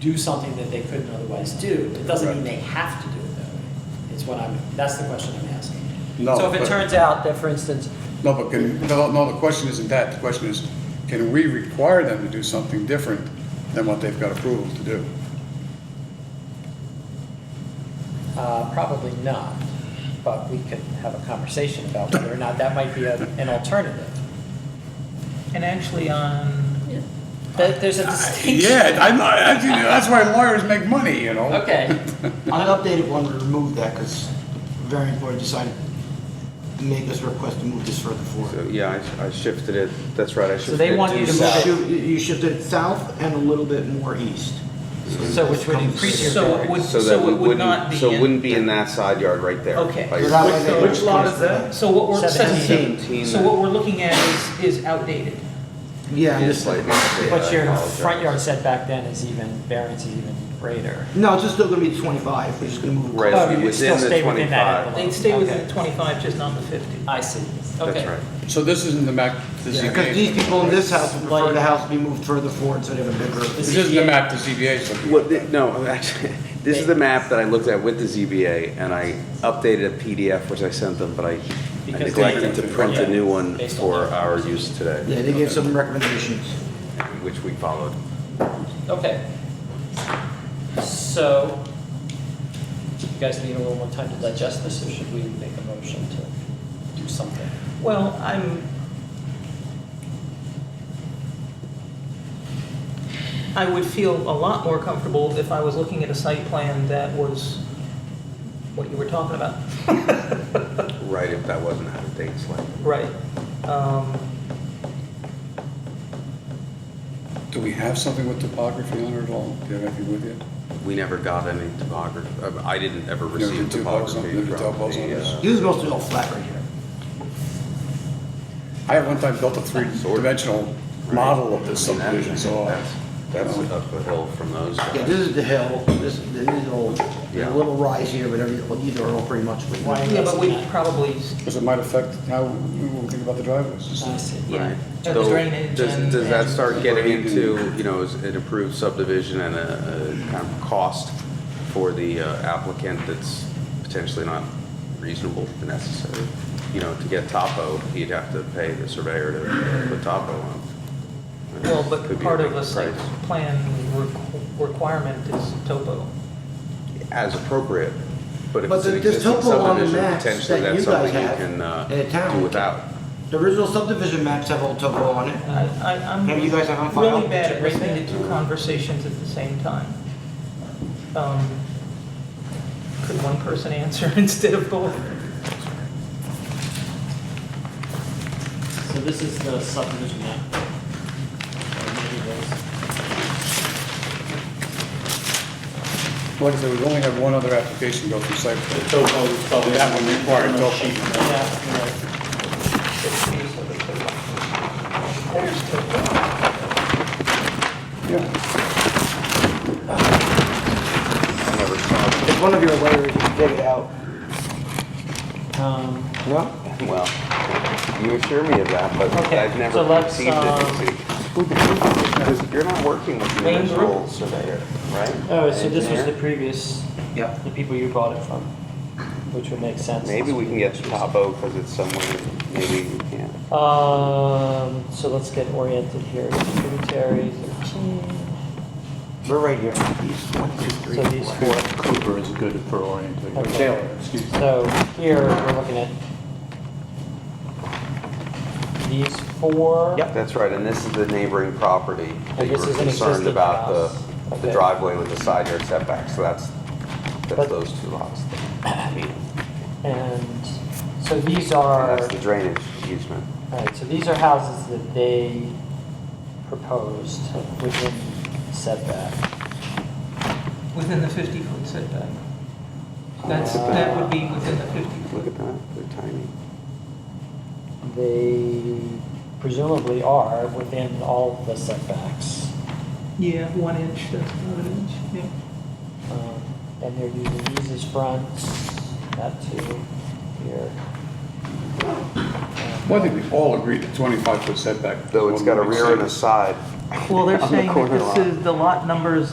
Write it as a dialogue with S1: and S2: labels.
S1: do something that they couldn't otherwise do. It doesn't mean they have to do it that way. It's what I'm, that's the question I'm asking.
S2: No,
S3: So if it
S2: but-
S3: turns out that, for instance,
S2: No, but can, no, no, the question isn't that. The question is, can we require them to do something different than what they've got approval to do?
S1: Uh, Probably not, but we could have a conversation about whether or not that might be a- an alternative.
S4: And actually on,
S1: There- There's
S5: Uh,
S1: a distinction.
S2: Yeah, I'm, not- I, think that's why lawyers make money, you know?
S1: Okay,
S6: On an updated one, we removed that because the variant board decided to make us request to move this further
S5: So,
S6: forward.
S5: yeah, I I shifted it, that's right, I shifted it.
S3: they want
S5: due
S3: you to
S6: You
S3: South.
S5: south.
S6: shif- You shifted it south and a little bit more east.
S3: so which would increase your
S4: so it
S3: variance.
S4: would,
S5: So that
S4: so
S5: we
S4: it would not
S5: wouldn't,
S4: be.
S5: so it
S4: in-
S5: wouldn't be in that side yard right there.
S4: Okay.
S5: By
S6: So that way
S5: yourself.
S6: they-
S4: Which lot is
S6: that?
S4: So what we're,
S1: Seventeen.
S4: seventeen, so what we're looking at is, is outdated.
S6: Yeah,
S5: It
S6: and
S5: is
S6: this,
S5: slightly outdated,
S3: But
S5: I
S3: your
S5: apologize.
S3: front yard setback then is even, variance is even greater.
S6: no, it's just still gonna be twenty-five, we're just gonna move. it
S5: Right,
S3: Oh,
S5: it'd be
S3: you'd still
S5: within the
S3: stay within that
S5: 25.
S3: envelope.
S4: They'd stay within
S3: Okay.
S4: twenty-five, just not the fifty.
S3: I see,
S5: That's
S3: okay.
S5: right.
S2: So this isn't the map the
S6: closer.
S2: ZBA.
S6: Yeah, because these people in this house would prefer the house to be moved further forward so they have a bigger.
S2: This isn't the map the ZBA is looking
S5: What,
S2: at.
S5: the- no, actually, this is the map that I looked at with the ZBA, and I updated a PDF which I sent them, but I I
S1: Because they-
S5: neglected to print a new one
S1: Based on
S5: for
S1: that.
S5: our use today,
S6: Yeah, they gave some recommendations.
S5: which we followed.
S3: Okay.
S1: so, you guys need a little more time to digest this, or should we make a motion to do something?
S4: Well, I'm. I would feel a lot more comfortable if I was looking at a site plan that was what you were talking about.
S5: Right, if that wasn't out of date slightly.
S4: Right. Um,
S2: Do we have something with topography on it at all? Do you have anything with you?
S5: We never got any topography, uh, I didn't
S2: Never
S5: ever receive
S2: did two balls on-
S5: topography
S2: never did
S5: from
S2: balls on
S5: the,
S2: this.
S5: uh,
S6: This is mostly all flat right here.
S2: I at one time built a three-dimensional model of this
S5: I mean, that-
S2: subdivision, so. uh,
S5: That's that's up the hill from those guys.
S6: Yeah, this is the hill, this, this is all,
S5: Yeah.
S6: a little rise here, but every, well, these are all pretty much.
S1: Right.
S4: Yeah, but we probably,
S2: Because it might affect how we we think about the driveways.
S6: Uh.
S1: I see.
S4: yeah,
S5: Right.
S4: the
S5: So,
S4: drainage
S5: does-
S4: and.
S5: Does that
S4: and-
S5: start getting
S2: Right.
S5: into, you know, is an approved subdivision and a a kind of cost for the uh, applicant that's potentially not reasonable or necessary? You know, to get topo, he'd have to pay the surveyor to put topo on.
S4: Well, but
S5: Could be
S4: part
S5: a
S4: of
S5: big
S4: a site
S5: price.
S4: plan requ- requirement is topo.
S5: As appropriate, but if
S6: But
S5: it's an
S6: the- there's
S5: existing
S6: topo on the
S5: subdivision,
S6: maps
S5: potentially
S6: that you
S5: that's
S6: guys
S5: something you
S6: have
S5: can uh,
S6: in a town.
S5: do without.
S6: The original subdivision maps have all topo on it.
S4: I, I- I'm
S6: Maybe you guys have on file?
S4: really bad at
S1: Check right
S4: listening to two conversations at the same time. Um, Could one person answer instead of both?
S1: So this is the subdivision map.
S2: Like I said, we've only had one other application go through site plan.
S7: The topo is probably.
S2: That one required
S7: on the
S2: topo.
S7: sheet.
S4: There's two.
S2: Yeah,
S5: I never saw it.
S6: If one of your lawyers can dig it out.
S1: Um,
S6: No?
S5: Well, you assure me of that, but
S1: Okay,
S5: I've
S1: so
S5: never
S1: let's,
S5: received
S1: um,
S5: it. Because you're not working with the
S1: Wayne's
S5: original surveyor, right?
S1: All right, Oh, so this was the
S5: Engineer?
S1: previous,
S6: Yep.
S1: the people you bought it from, which would make sense.
S5: Maybe we can get the topo because it's somewhere, maybe we can.
S1: Um, so let's get oriented here, tributary thirteen,
S6: We're right here. These one, two, three,
S1: so these
S6: four.
S1: four.
S7: Cooper is good for orienting.
S1: Okay.
S7: Excuse me.
S1: So here, we're looking at these four.
S5: That's right, and this is the neighboring property that
S1: And
S5: you
S1: this
S5: were
S1: is an
S5: concerned
S1: existing
S5: about,
S1: house.
S5: the, the
S1: Okay.
S5: driveway with the side yard setback, so that's,
S1: But-
S5: that's those two lots.
S1: And so these
S5: And
S1: are,
S5: that's the drainage easement.
S1: all right, so these are houses that they proposed within setback.
S4: Within the 50-foot setback. That's, that would be within the 50-foot.
S5: Look at that, they're tiny.
S1: They presumably are within all the setbacks.
S4: Yeah, one inch, that's not an inch, yeah.
S1: Um, And they're using these as fronts, that too, here.
S2: well, I think we all agreed that twenty-five foot setback.
S5: Though it's got a rear and a side.
S4: Well, they're
S5: On the
S4: saying that
S5: corner lot.
S4: this is, the lot numbers